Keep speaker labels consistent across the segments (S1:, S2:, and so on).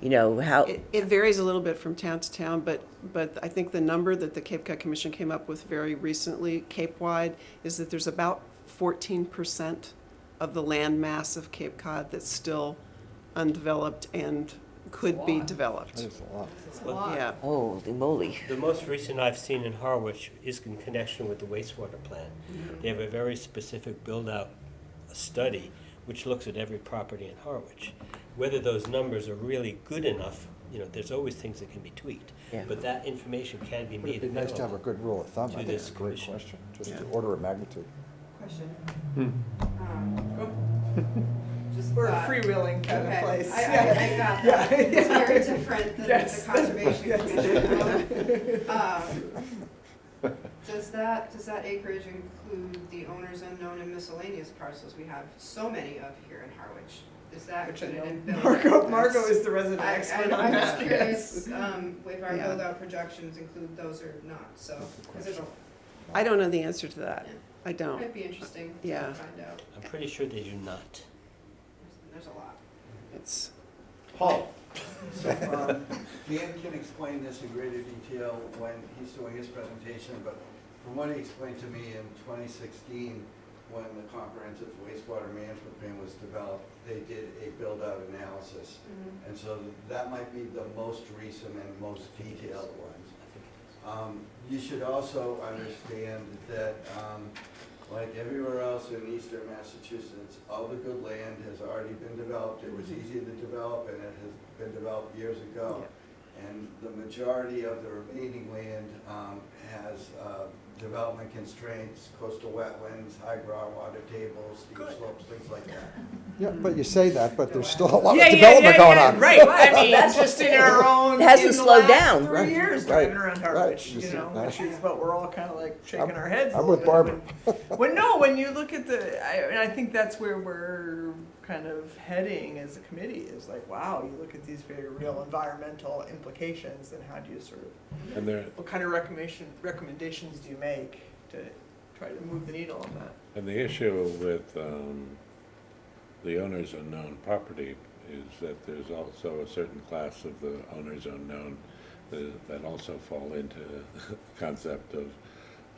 S1: you know, how,
S2: It, it varies a little bit from town to town, but, but I think the number that the Cape Cod Commission came up with very recently, Cape-wide, is that there's about fourteen percent of the land mass of Cape Cod that's still undeveloped and could be developed. Yeah,
S1: holy moly.
S3: The most recent I've seen in Harwich is in connection with the wastewater plant.
S4: Mm-hmm.
S3: They have a very specific build-out study which looks at every property in Harwich. Whether those numbers are really good enough, you know, there's always things that can be tweaked.
S1: Yeah.
S3: But that information can be
S4: But
S3: made.
S4: it'd be nice to have a
S3: available.
S4: good rule of thumb. I
S3: To
S4: think
S3: this
S4: it's a great
S3: commission.
S4: question, just the
S2: Yeah.
S4: order of magnitude.
S5: Question.
S6: Just
S5: We're a
S6: thought-
S5: freewheeling kind of
S6: Um, Okay,
S5: place.
S6: I, I,
S5: Yeah.
S6: I got that.
S5: Yeah.
S6: It's very different than the
S5: Yes.
S6: conservation
S5: Yes.
S6: commission. Um, Does that, does that acreage include the owners unknown and miscellaneous parcels we have so many of here in Harwich? Is that
S5: Which I
S6: included in
S5: know
S6: building?
S5: Marco, Marco is the resident
S6: I,
S5: expert
S6: I,
S5: on
S6: I'm just
S5: that, yes.
S6: curious, um, if our
S2: Yeah.
S6: build-out projections include those or not, so, cause it'll,
S2: I don't know the answer to that. I don't.
S6: might be interesting
S2: Yeah.
S6: to find out,
S3: I'm pretty sure they do not.
S6: there's a lot.
S2: It's,
S7: Paul, so, um, Dan can explain this in greater detail when he's doing his presentation, but from what he explained to me in twenty sixteen, when the comprehensive wastewater management plan was developed, they did a build-out analysis. And so that might be the most recent and most detailed ones. Um, You should also understand that, um, like everywhere else in eastern Massachusetts, all the good land has already been developed. It was easy to develop, and it has been developed years ago. And the majority of the remaining land um, has uh, development constraints, coastal wetlands, high groundwater tables, steep slopes, things like that.
S4: Yeah, but you say that, but there's still a lot
S5: Mm-hmm. Yeah,
S4: of
S5: yeah,
S4: development
S5: yeah,
S4: going
S5: yeah,
S4: on.
S5: Right, I mean, just in our own,
S1: It hasn't
S5: in the
S1: slowed
S5: last
S1: down.
S4: Right,
S5: three years
S4: right,
S5: driving around
S4: right.
S5: Harwich, you
S4: Just-
S5: know,
S4: I-
S5: which is, but we're all kind of like shaking
S4: I'm-
S5: our heads. a
S4: I'm
S5: little
S4: with
S5: bit
S4: Barbara.
S5: when- When, no, when you look at the, I, and I think that's where we're kind of heading as a committee, is like, wow, you look at these very real environmental implications, and how do you sort of
S8: And they're,
S5: What kind of recommendation, recommendations do you make to try to move the needle on that?
S8: and the issue with, um, the owners unknown property is that there's also a certain class of the owners unknown that, that also fall into the concept of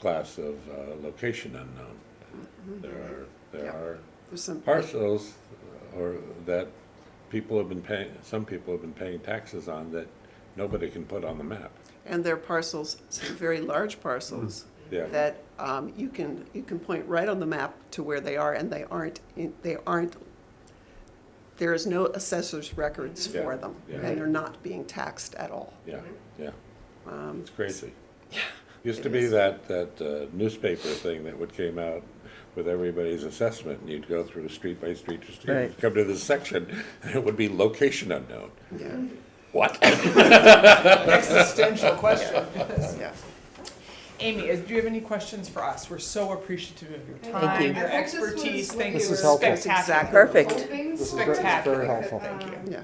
S8: class of, uh, location unknown.
S6: Mm-hmm.
S8: There are, there
S2: Yeah.
S8: are
S2: there's some,
S8: parcels uh, or that people have been paying, some people have been paying taxes on that nobody can put on the map.
S2: and there are parcels, some very large parcels,
S8: Yeah.
S2: that um, you can, you can point right on the map to where they are, and they aren't, in- they aren't, there is no assessor's records
S8: Yeah,
S2: for them,
S8: yeah.
S2: and they're not being taxed at all.
S8: Yeah, yeah.
S2: Um,
S8: It's crazy.
S2: it
S8: Used to be
S2: is.
S8: that, that uh, newspaper thing that would came out with everybody's assessment, and you'd go through street by street to street,
S1: Right.
S8: come to this section, and it would be location unknown.
S2: Yeah,
S8: What?
S5: Existential question.
S2: yeah.
S5: Amy, is- do you have any questions for us? We're so appreciative of your
S6: Thank
S5: time,
S1: you.
S6: I
S5: your
S6: hope this was
S5: expertise. Thank you.
S6: This
S5: It was
S4: is helpful.
S5: Spectacular.
S1: Perfect.
S6: Hoping
S4: This is
S6: so.
S4: very- this is very
S5: Spectacular.
S4: helpful.
S6: Thank you.
S2: Yeah.
S6: And Um,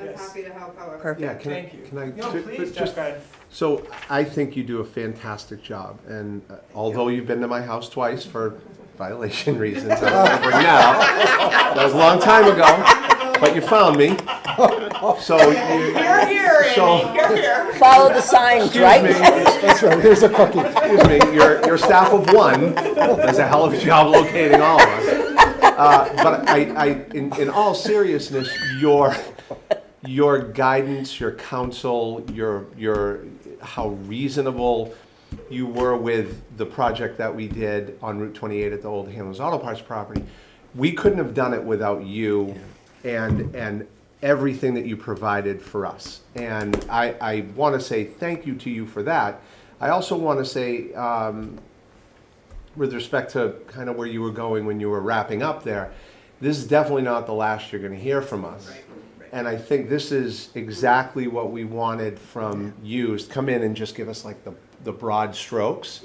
S6: I'm
S5: Yes.
S6: happy to help however. I
S9: Yeah,
S5: Perfect.
S9: can I,
S5: Thank you.
S9: can I?
S5: No,
S9: ju-
S5: please,
S9: ju-
S5: Jeff,
S9: just-
S5: go ahead.
S9: So I think you do a fantastic job, and uh, although you've been to my house twice for violation reasons, I don't remember now. That was a long time ago, but you found me. So you.
S5: You're here,
S9: So-
S5: Amy. You're here.
S1: Follow the signs,
S9: Excuse me,
S1: right?
S9: that's right, here's a cookie. Excuse me, your, your staff of one does a hell of a job locating all of us. Uh, But I, I, in, in all seriousness, your, your guidance, your counsel, your, your, how reasonable you were with the project that we did on Route twenty-eight at the old Hamlin's Auto Parts property. We couldn't have done it without you and, and everything that you provided for us. And I, I want to say thank you to you for that. I also want to say, um, with respect to kind of where you were going when you were wrapping up there, this is definitely not the last you're going to hear from us. And I think this is exactly what we wanted from you is come in and just give us like the, the broad strokes.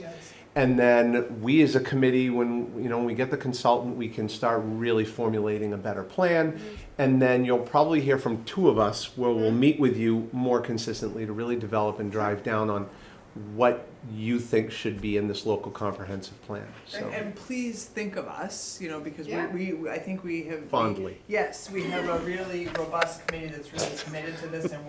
S9: And then we as a committee, when, you know, when we get the consultant, we can start really formulating a better plan. And then you'll probably hear from two of us where we'll meet with you more consistently to really develop and drive down on what you think should be in this local comprehensive plan, so
S5: And, and please think of us, you know, because
S6: Yeah.
S5: we, we, I think we have.
S9: fondly.
S5: Yes, we have a really robust committee that's really committed to this and